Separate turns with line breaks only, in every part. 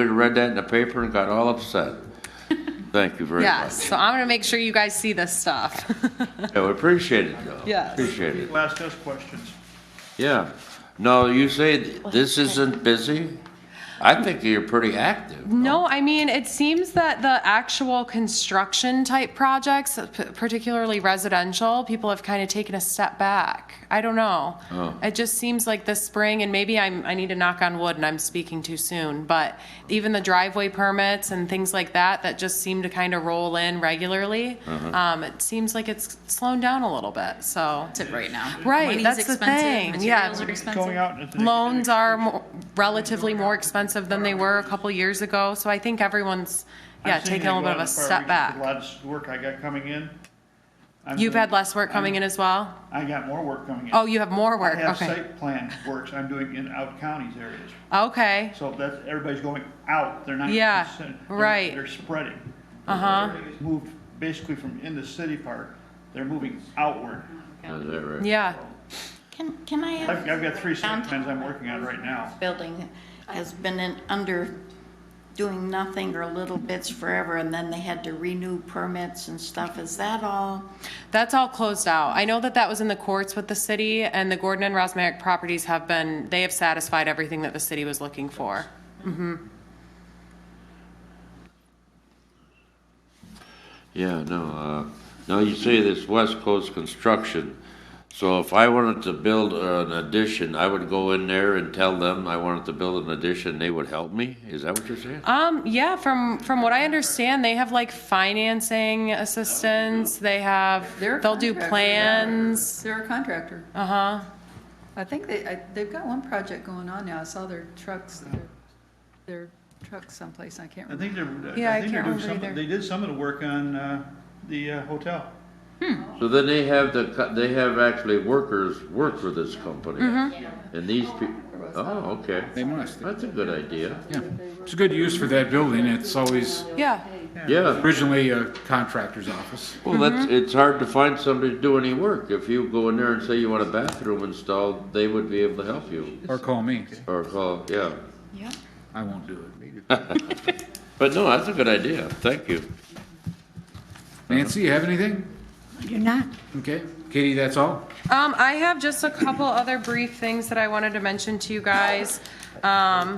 somebody read that in the paper and got all upset. Thank you very much.
Yes, so I'm going to make sure you guys see this stuff.
Yeah, we appreciate it, though.
Yes.
Appreciate it,
People ask us questions.
yeah. No, you say th- this isn't busy? I think you're pretty active.
No, I mean, it seems that the actual construction type projects, p- particularly residential, people have kind of taken a step back. I don't know.
Oh.
It just seems like this spring, and maybe I'm, I need to knock on wood and I'm speaking too soon, but even the driveway permits and things like that, that just seem to kind of roll in regularly.
Uh-huh.
Um, it seems like it's slowing down a little bit, so.
expensive right now.
Right,
Money's
that's the
expensive,
thing, yeah.
Materials are expensive.
Going out. into the-
loans are mo- relatively more expensive than they were a couple years ago, so I think everyone's,
I'm
yeah,
seeing
taking
it
a little
go
bit of
out
a
as far
step
reaches
back.
with A lot of work I got coming in. I'm
You've
doing-
had less work coming in as well?
I got more work coming in.
Oh, you have more
I
work,
have
okay.
site plan works I'm doing in out counties areas.
Okay,
So that's, everybody's going out, they're not.
Yeah,
consen- they're-
right.
They're spreading.
uh-huh,
Moved basically from in the city part, they're moving outward.
Is that right?
yeah,
Can, can I have?
I've, I've got three site
downtown
plans I'm working on right now.
Building has been in, under doing nothing or little bits forever, and then they had to renew permits and stuff. Is that all?
that's all closed out. I know that that was in the courts with the city, and the Gordon and Rosmaric properties have been, they have satisfied everything that the city was looking for.
Yeah, no, uh, no, you say this West Coast construction. So if I wanted to build an addition, I would go in there and tell them I wanted to build an addition, they would help me? Is that what you're saying?
Um, yeah, from, from what I understand, they have like financing assistance, they have,
They're a
they'll do
contractor.
plans.
They're a contractor.
Uh-huh.
I think they, I- they've got one project going on now. I saw their trucks, their- their trucks someplace. I can't
I
remember.
think they're,
Yeah, I
I think they're
can't
doing
remember
some,
either.
they did some of the work on, uh, the uh, hotel.
So then they have the, co- they have actually workers work for this company. And these people, oh, okay.
They must.
That's a good idea.
Yeah, it's a good use for that building. It's always
Yeah,
Yeah,
originally a contractor's office.
well, that's, it's hard to find somebody to do any work. If you go in there and say you want a bathroom installed, they would be able to help you.
Or call me.
Or call, yeah.
Yeah.
I won't do it.
But no, that's a good idea. Thank you.
Nancy, you have anything?
You're not.
Okay. Katie, that's all?
um, I have just a couple other brief things that I wanted to mention to you guys. Um,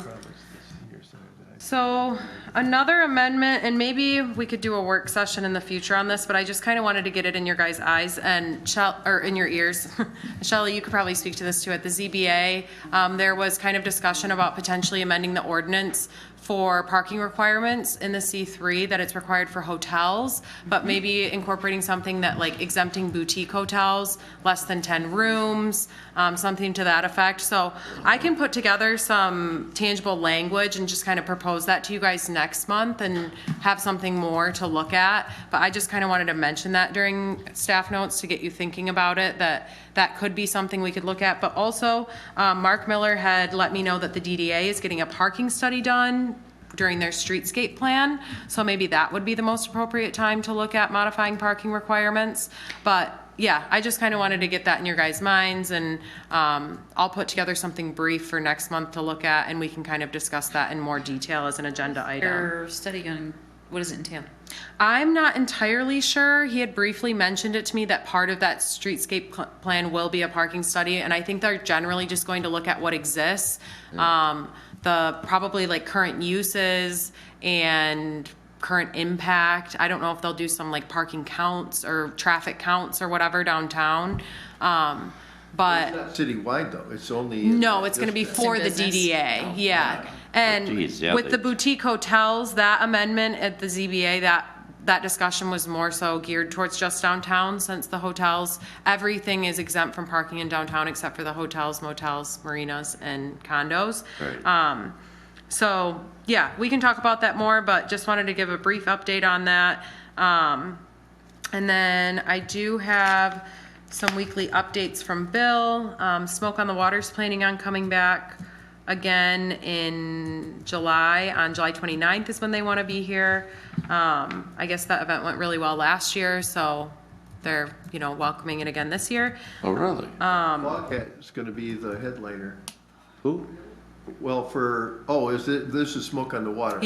so another amendment, and maybe we could do a work session in the future on this, but I just kind of wanted to get it in your guys' eyes and Shell, or in your ears. Shelley, you could probably speak to this too. At the ZBA, um, there was kind of discussion about potentially amending the ordinance for parking requirements in the C3 that it's required for hotels, but maybe incorporating something that like exempting boutique hotels, less than 10 rooms, um, something to that effect. So I can put together some tangible language and just kind of propose that to you guys next month and have something more to look at. But I just kind of wanted to mention that during staff notes to get you thinking about it, that that could be something we could look at. But also, um, Mark Miller had let me know that the DDA is getting a parking study done during their streetscape plan. So maybe that would be the most appropriate time to look at modifying parking requirements. But yeah, I just kind of wanted to get that in your guys' minds and um, I'll put together something brief for next month to look at and we can kind of discuss that in more detail as an agenda item.
Your study on, what does it entail?
I'm not entirely sure. He had briefly mentioned it to me that part of that streetscape pl- plan will be a parking study, and I think they're generally just going to look at what exists, um, the probably like current uses and current impact. I don't know if they'll do some like parking counts or traffic counts or whatever downtown, um, but.
It's not citywide though, it's only.
No, it's gonna be
just-
for the
business.
DDA, yeah. And
Oh, Geez, yeah,
with the
they-
boutique hotels, that amendment at the ZBA, that, that discussion was more so geared towards just downtown, since the hotels, everything is exempt from parking in downtown except for the hotels, motels, marinas, and condos.
Right.
Um, so, yeah, we can talk about that more, but just wanted to give a brief update on that. Um, and then I do have some weekly updates from Bill. Um, Smoke on the Water's planning on coming back again in July. On July 29th is when they want to be here. Um, I guess that event went really well last year, so they're, you know, welcoming it again this year.
Oh, really?
Bobcat is gonna be the headliner.
Who?
well, for, oh, is it, this is smoke on the water?